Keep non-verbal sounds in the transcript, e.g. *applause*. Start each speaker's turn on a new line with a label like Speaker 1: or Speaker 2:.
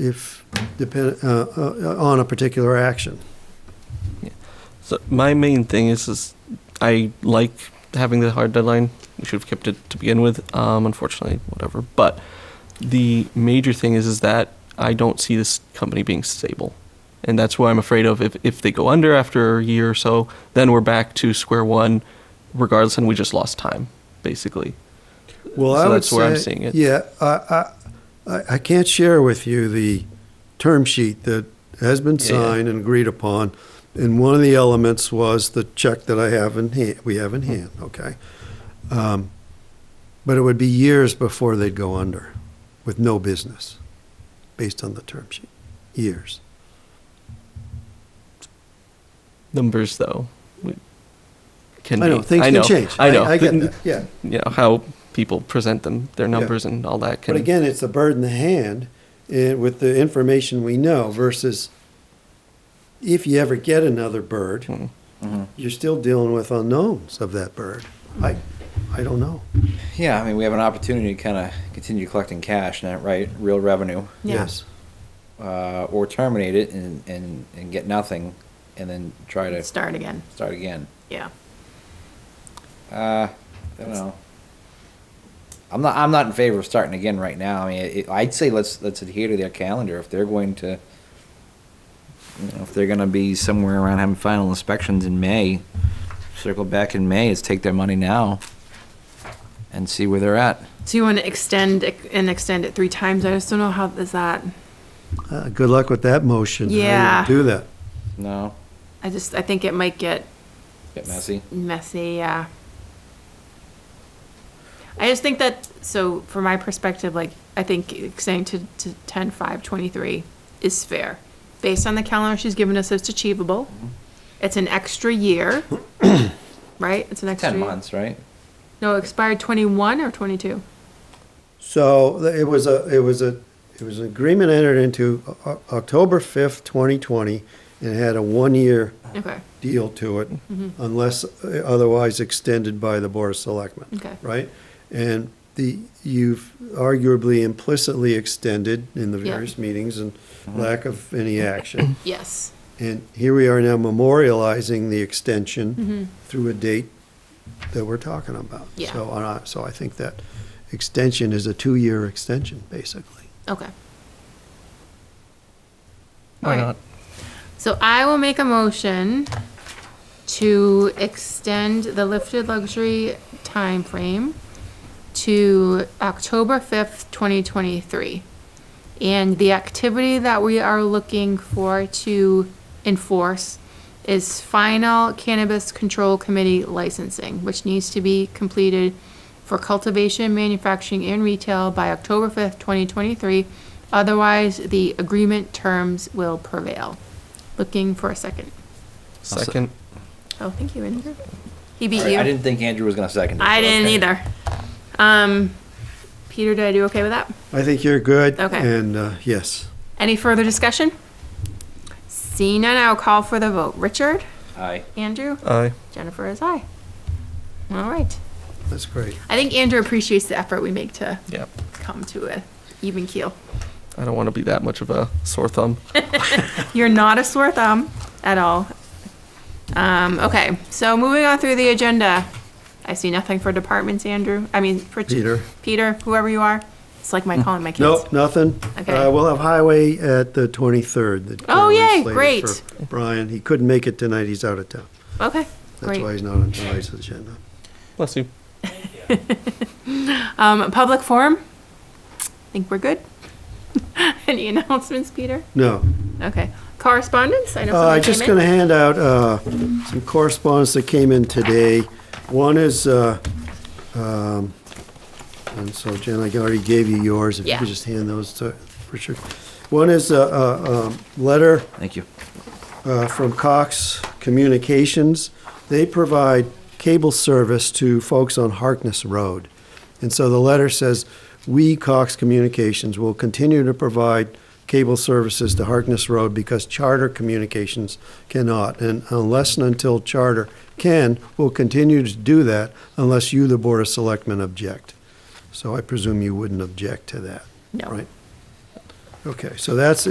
Speaker 1: if, depend, uh, uh, on a particular action.
Speaker 2: So my main thing is, is I like having the hard deadline. We should have kept it to begin with. Um, unfortunately, whatever. But the major thing is, is that I don't see this company being stable, and that's why I'm afraid of. If if they go under after a year or so, then we're back to square one, regardless, and we just lost time, basically.
Speaker 1: Well,
Speaker 2: So
Speaker 1: I would
Speaker 2: that's where I'm
Speaker 1: say-
Speaker 2: seeing it.
Speaker 1: Yeah, I, I, I- I can't share with you the term sheet that has been
Speaker 2: Yeah, yeah.
Speaker 1: signed and agreed upon. And one of the elements was the check that I have in hand, we have in hand, okay? Um, But it would be years before they'd go under with no business, based on the term sheet, years.
Speaker 2: Numbers, though, we- can
Speaker 1: I know,
Speaker 2: be-
Speaker 1: things
Speaker 2: I
Speaker 1: can
Speaker 2: know,
Speaker 1: change.
Speaker 2: I know.
Speaker 1: I get
Speaker 2: Th-
Speaker 1: that, yeah.
Speaker 2: You know how people present them, their numbers, and all that can.
Speaker 1: But again, it's a bird in the hand and with the information we know versus if you ever get another bird,
Speaker 2: Mm.
Speaker 1: you're still dealing with unknowns of that bird. I, I don't know.
Speaker 3: Yeah, I mean, we have an opportunity to kind of continue collecting cash, now, right? Real revenue,
Speaker 4: Yeah.
Speaker 1: Yes.
Speaker 3: uh, or terminate it and, and, and get nothing, and then try to
Speaker 4: Start again,
Speaker 3: start again.
Speaker 4: yeah.
Speaker 3: Uh, I don't know. I'm not. I'm not in favor of starting again right now. I mean, it, I'd say let's let's adhere to their calendar if they're going to. You know, if they're going to be somewhere around having final inspections in May, circle back in May. Is take their money now. And see where they're at.
Speaker 4: So you want to extend it- and extend it three times? I just don't know how, is that,
Speaker 1: Uh, good luck with that motion. I wouldn't
Speaker 4: Yeah.
Speaker 1: Do that.
Speaker 3: No,
Speaker 4: I just, I think it might get
Speaker 3: get messy.
Speaker 4: messy, yeah. I just think that, so from my perspective, like, I think extending to, to ten, five, twenty-three is fair. Based on the calendar she's given us, it's achievable.
Speaker 3: Mm-hmm.
Speaker 4: It's an
Speaker 3: *coughs*
Speaker 4: extra year, right? It's an extra.
Speaker 3: Ten
Speaker 4: year.
Speaker 3: months, right?
Speaker 4: No, it expired twenty-one or twenty-two?
Speaker 1: So th- it was a, it was a, it was an agreement entered into O- O- October 5th, 2020, and it had a one-year
Speaker 4: Okay,
Speaker 1: deal to it
Speaker 4: Mm-hmm.
Speaker 1: unless uh, otherwise extended by the Board of Selectmen.
Speaker 4: Okay.
Speaker 1: Right? And the, you've arguably implicitly extended in the
Speaker 4: Yeah.
Speaker 1: various meetings and lack of any action.
Speaker 4: yes,
Speaker 1: And here we are now memorializing the extension through a date that we're talking about.
Speaker 4: Mm-hmm. Yeah.
Speaker 1: So, and I- so I think that extension is a two-year extension, basically.
Speaker 4: okay.
Speaker 2: Why
Speaker 4: Alright.
Speaker 2: not?
Speaker 4: So I will make a motion to extend the lifted luxury time frame to October fifth, twenty twenty-three. And the activity that we are looking for to enforce is final cannabis control committee licensing, which needs to be completed for cultivation, manufacturing, and retail by October fifth, twenty twenty-three. Otherwise, the agreement terms will prevail. Looking for a second.
Speaker 2: Second.
Speaker 4: Oh, thank you, Andrew. He beat
Speaker 3: I,
Speaker 4: you.
Speaker 3: I didn't think Andrew was going to second. it,
Speaker 4: I
Speaker 3: so
Speaker 4: didn't
Speaker 3: okay.
Speaker 4: either. Um, Peter, did I do okay with that?
Speaker 1: I think you're good.
Speaker 4: Okay.
Speaker 1: And, uh, yes.
Speaker 4: Any further discussion? Seeing none, I'll call for the vote. Richard,
Speaker 3: Aye.
Speaker 4: Andrew,
Speaker 2: Aye.
Speaker 4: Jennifer is aye. All right.
Speaker 1: That's great.
Speaker 4: I think Andrew appreciates the effort we make to
Speaker 2: Yeah.
Speaker 4: come to a even keel.
Speaker 2: I don't want to be that much of a sore thumb.
Speaker 4: You're not a sore thumb at all. Um, okay, so moving on through the agenda. I see nothing for departments, Andrew. I mean, for
Speaker 1: Peter. Mm.
Speaker 4: Peter, whoever you are. It's like my calling my kids.
Speaker 1: Nope, nothing.
Speaker 4: Okay.
Speaker 1: Uh, we'll have highway at the 23rd. that
Speaker 4: Oh,
Speaker 1: Carolyn's
Speaker 4: yay,
Speaker 1: slated
Speaker 4: great.
Speaker 1: for Brian, he couldn't make it tonight, he's out of town.
Speaker 4: Okay,
Speaker 1: That's why
Speaker 4: great.
Speaker 1: he's not on tonight's agenda.
Speaker 2: Bless you.
Speaker 4: Um, public forum? I think we're good. *laughs* Any announcements, Peter?
Speaker 1: No.
Speaker 4: Okay. Correspondence? I know
Speaker 1: Uh,
Speaker 4: somebody
Speaker 1: just
Speaker 4: came
Speaker 1: going to
Speaker 4: in.
Speaker 1: hand out uh, some correspondence that came in today. One is, uh, um, and so Jen, I already gave you yours. If you
Speaker 4: Yeah.
Speaker 1: could just hand those to Richard. One is a- a um, letter
Speaker 3: Thank you.
Speaker 1: uh, from Cox Communications. They provide cable service to folks on Harkness Road. And so the letter says, "We, Cox Communications, will continue to provide cable services to Harkness Road because Charter Communications cannot. And unless and until Charter can, we'll continue to do that unless you, the Board of Selectmen, object." So I presume you wouldn't object to that,
Speaker 4: No.
Speaker 1: right? Okay, so that's